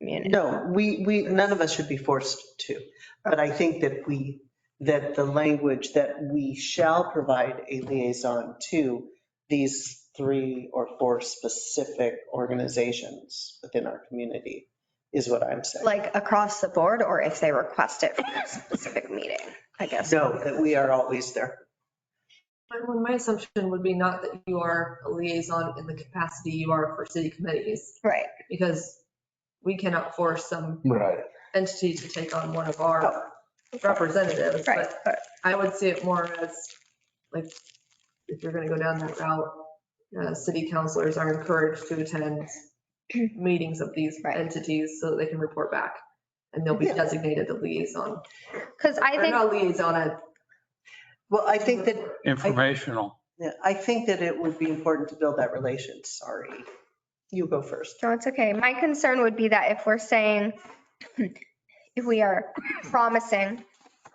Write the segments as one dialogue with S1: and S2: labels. S1: community.
S2: No, we, we, none of us should be forced to, but I think that we, that the language that we shall provide a liaison to these three or four specific organizations within our community is what I'm saying.
S1: Like across the board, or if they request it for a specific meeting, I guess.
S2: No, that we are always there.
S3: Well, my assumption would be not that you are a liaison in the capacity you are for city committees,
S1: Right,
S3: because we cannot force some
S4: Right.
S3: entity to take on one of our representatives.
S1: right.
S3: But
S1: but-
S3: I would see it more as, like, if you're gonna go down that route, uh, city councilors are encouraged to attend meetings of these
S1: Right.
S3: entities so that they can report back. And they'll be
S2: Yeah.
S3: designated a liaison,
S1: Cause I
S3: or
S1: think,
S3: not liaison, a
S2: Well, I think that,
S5: Informational.
S2: yeah, I think that it would be important to build that relation. Sorry. You go first.
S1: no, it's okay. My concern would be that if we're saying, if we are promising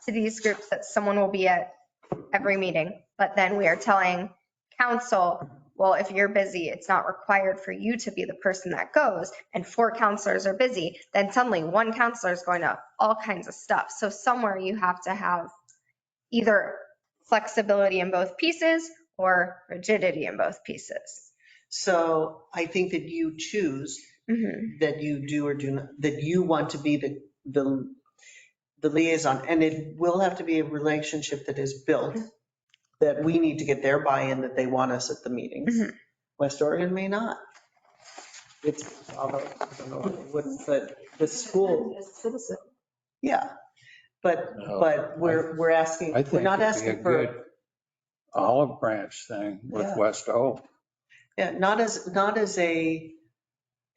S1: to these groups that someone will be at every meeting, but then we are telling council, well, if you're busy, it's not required for you to be the person that goes, and four counselors are busy, then suddenly one counselor is going to all kinds of stuff. So somewhere you have to have either flexibility in both pieces or rigidity in both pieces.
S2: So I think that you choose
S1: Mhm.
S2: that you do or do not, that you want to be the, the, the liaison. And it will have to be a relationship that is built, that we need to get their buy-in, that they want us at the meetings.
S1: Mhm.
S2: West Oregon may not. It's, although, I don't know, what's the, the school,
S3: as a citizen.
S2: yeah. But, but we're, we're asking,
S5: Oh, I
S2: we're
S5: think
S2: not
S5: it'd be a
S2: asking for,
S5: good olive branch thing with
S2: Yeah.
S5: West O.
S2: yeah, not as, not as a,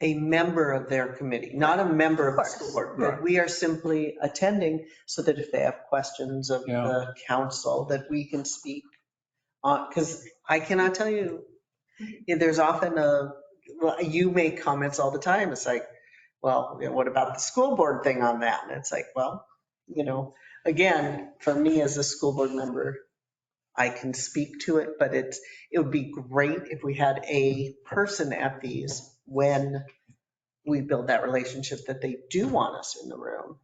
S2: a member of their committee, not a member of the school board. but
S5: Right.
S2: We are simply attending so that if they have questions of
S5: Yeah.
S2: the council, that we can speak. Because I cannot tell you,
S5: Mm-hmm.
S2: yeah, there's often a, well, you make comments all the time. It's like, well, you know, what about the school board thing on that? And it's like, well, you know, again, for me as a school board member, I can speak to it, but it's, it would be great if we had a person at these when we build that relationship that they do want us in the room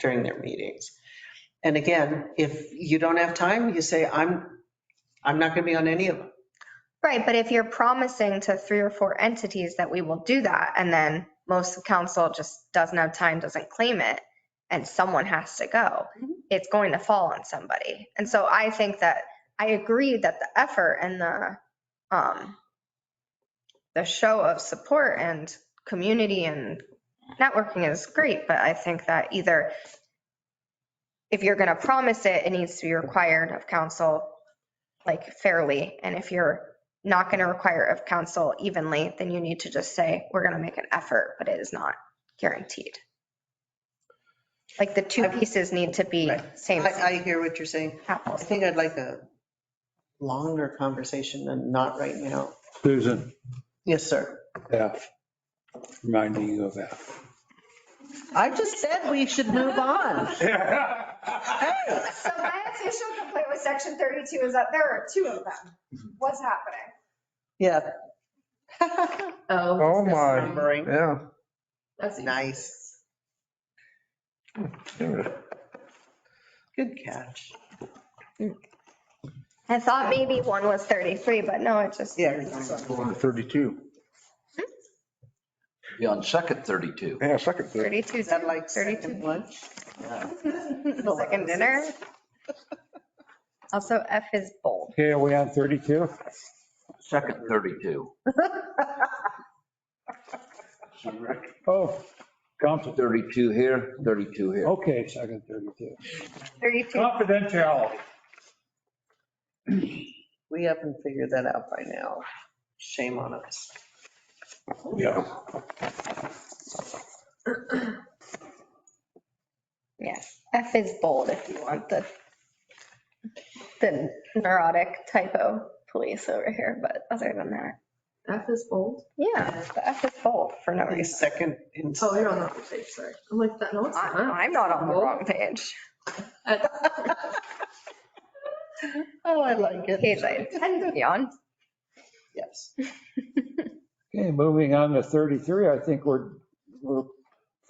S2: during their meetings. And again, if you don't have time, you say, I'm, I'm not going to be on any of them.
S1: Right, but if you're promising to three or four entities that we will do that, and then most of council just doesn't have time, doesn't claim it, and someone has to go, it's going to fall on somebody. And so I think that, I agree that the effort and the, um, the show of support and community and networking is great, but I think that either if you're going to promise it, it needs to be required of council, like fairly. And if you're not going to require of council evenly, then you need to just say, we're going to make an effort, but it is not guaranteed. Like the two pieces need to be
S2: Right.
S1: same
S2: I, I hear what you're saying. I
S1: apples.
S2: think I'd like a longer conversation than not right now.
S5: Susan,
S2: Yes, sir.
S5: yeah, reminding you of that.
S2: I just said we should move on.
S1: So my official complaint with section 32 is that there are two of them. What's happening?
S2: Yeah.
S3: Oh.
S4: Oh, my.
S2: Remembering.
S4: Yeah.
S3: That's
S2: Nice. Good catch.
S1: I thought maybe one was 33, but no, it just.
S2: Yeah.
S4: Going to 32.
S6: Yeah, on second 32.
S4: Yeah, second. 32.
S1: 32,
S2: Is that like
S1: 32.
S2: second lunch?
S1: Second dinner. Also, F is bold.
S5: Okay, are we on 32?
S6: Second 32.
S5: Oh, council,
S6: 32 here, 32 here.
S5: okay, second 32.
S2: Oh.
S1: 32,
S5: Confidentiality.
S2: We haven't figured that out by now. Shame on us.
S5: Yeah.
S1: yes. F is bold if you want the, the neurotic typo police over here, but other than that,
S3: F is bold.
S1: yeah, the F is bold for no
S2: Our
S1: reason.
S2: second. in-
S3: Oh, you're on the wrong page, sorry. I'm like, that. no, it's
S1: I-
S3: not.
S1: I'm not on the wrong page.
S2: Oh, I like
S1: Page I intend to be on.
S2: Yes.
S5: Okay, moving on to 33, I think we're, we're